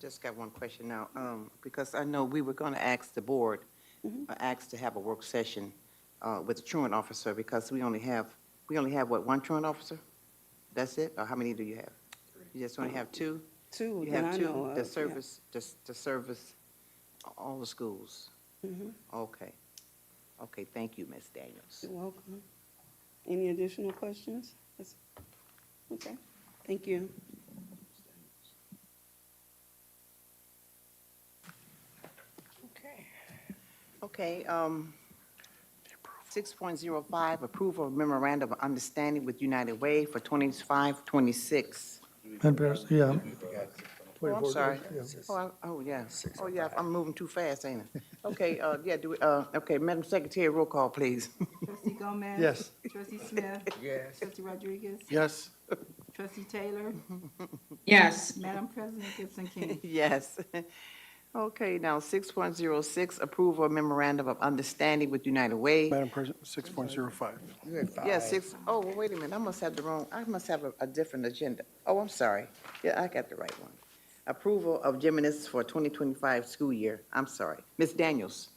just got one question now, um, because I know we were gonna ask the board, Mm-hmm. uh, ask to have a work session, uh, with the truant officer, because we only have, we only have, what, one truant officer? That's it, or how many do you have? You just only have two? Two You that have I know two, of. the yeah. service, the, the service, all the schools? Mm-hmm. Okay, okay, thank you, Ms. Daniels. You're welcome. Any additional questions? That's- Okay, thank you. Okay. Okay, um, six point zero five, approval of memorandum of understanding with United Way for twenty-five, twenty-six. Madam President, yeah. Oh, I'm 24, sorry. yeah. Oh, I- oh, yeah. Oh, yeah, I'm moving too fast, ain't I? Okay, uh, yeah, do, we- uh, okay, Madam Secretary, roll call, please. Trustee Gomez? Yes. Trustee Smith? Yes. Trustee Rodriguez? Yes. Trustee Taylor? Yes, Madam President Gibson King? Yes. Okay, now, six point zero six, approval of memorandum of understanding with United Way. Madam President, 6.05. Yeah, six, oh, well, wait a minute, I must have the wrong, I must have a, a different agenda. Oh, I'm sorry. Yeah, I got the right one. Approval of Geminis for 2025 school year. I'm sorry. Ms. Daniels?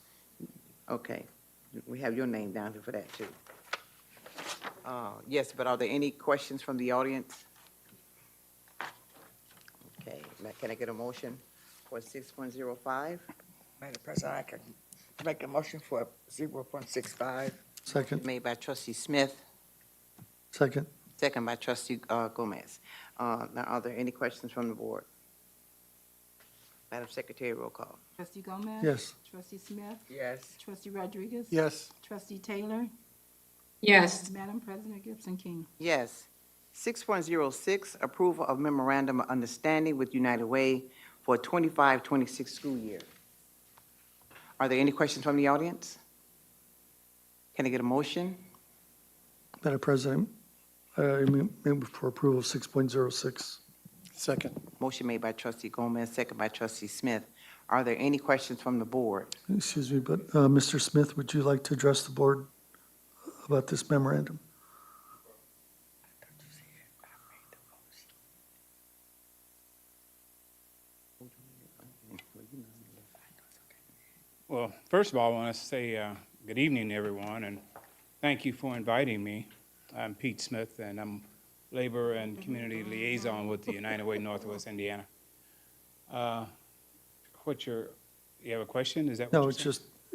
Okay, we have your name down here for that, too. Uh, yes, but are there any questions from the audience? Okay, ma- can I get a motion for 6.05? Madam President, I can make a motion for zero point six five. Second, Made by trustee Smith, second, second by trustee uh, Gomez. Uh, Now, are there any questions from the board? Madam Secretary, roll call. Trustee Gomez? yes. Trustee Smith? Yes. Trustee Rodriguez? Yes, Trustee Taylor? yes, Madam President Gibson King? Yes. 6.06, approval of memorandum of understanding with United Way for 25-26 school year. Are there any questions from the audience? Can I get a motion? Madam President, uh, I mean, move for approval of 6.06. second. Motion made by trustee Gomez, second by trustee Smith. Are there any questions from the board? Excuse me, but uh, Mr. Smith, would you like to address the board about this memorandum? Well, first of all, I want to say uh, good evening, everyone, and thank you for inviting me. I'm Pete Smith, and I'm Labor and Community Liaison with the United Way Northwest Indiana. Uh, What's your, you have a question? Is that what No, you're it's saying?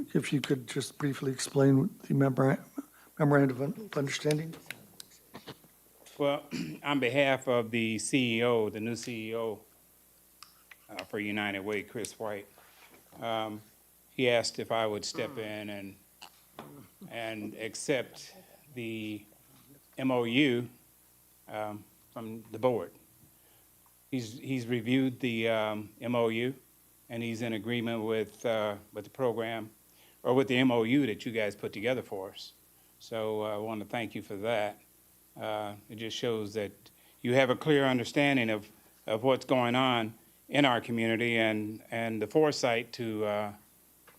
just, if you could just briefly explain the memora- memorandum of understanding? Well, on behalf of the CEO, the new CEO uh, for United Way, Chris White, um, he asked if I would step in and, and accept the MOU um, from the board. He's, he's reviewed the um, MOU, and he's in agreement with, uh, with the program, or with the MOU that you guys put together for us. So uh, I want to thank you for that. Uh, It just shows that you have a clear understanding of, of what's going on in our community and, and the foresight to uh,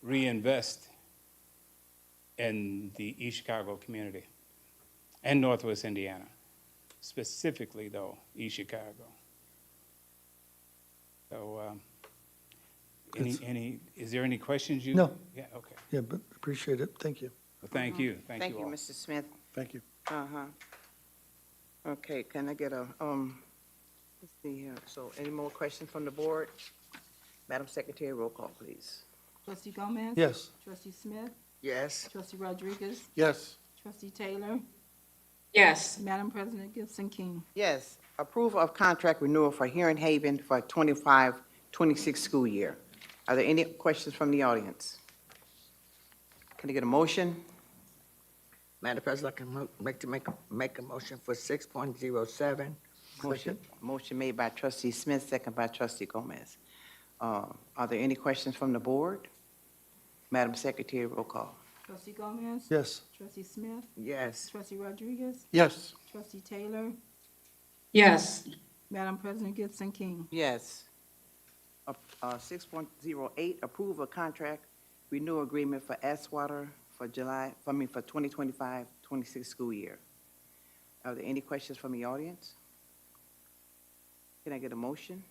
reinvest in the East Chicago community and Northwest Indiana, specifically though, East Chicago. So, um, any, It's- any, is there any questions you? No. Yeah, okay. Yeah, but appreciate it, thank you. Well, thank you, thank you all. Thank you, Mr. Smith. Thank you. Uh-huh. Okay, can I get a, um, let's see here, so any more questions from the board? Madam Secretary, roll call, please. Trustee Gomez? Yes. Trustee Smith? Yes. Trustee Rodriguez? Yes, Trustee Taylor? yes, Madam President Gibson King? Yes, approval of contract renewal for Heron Haven for 25-26 school year. Are there any questions from the audience? Can I get a motion? Madam President, I can mo- make to make, make a motion for six point zero seven. Motion, motion made by trustee Smith, second by trustee Gomez. Uh, are there any questions from the board? Madam Secretary, roll call. Trustee Gomez? Yes, Trustee Smith? Yes. Trustee Rodriguez? yes, Trustee Taylor? yes, Madam President Gibson King? Yes. Up- Uh, six point zero eight, approve a contract renewal agreement for Aswater for July, I mean, for 2025-26 school year. Are there any questions from the audience? Can I get a motion?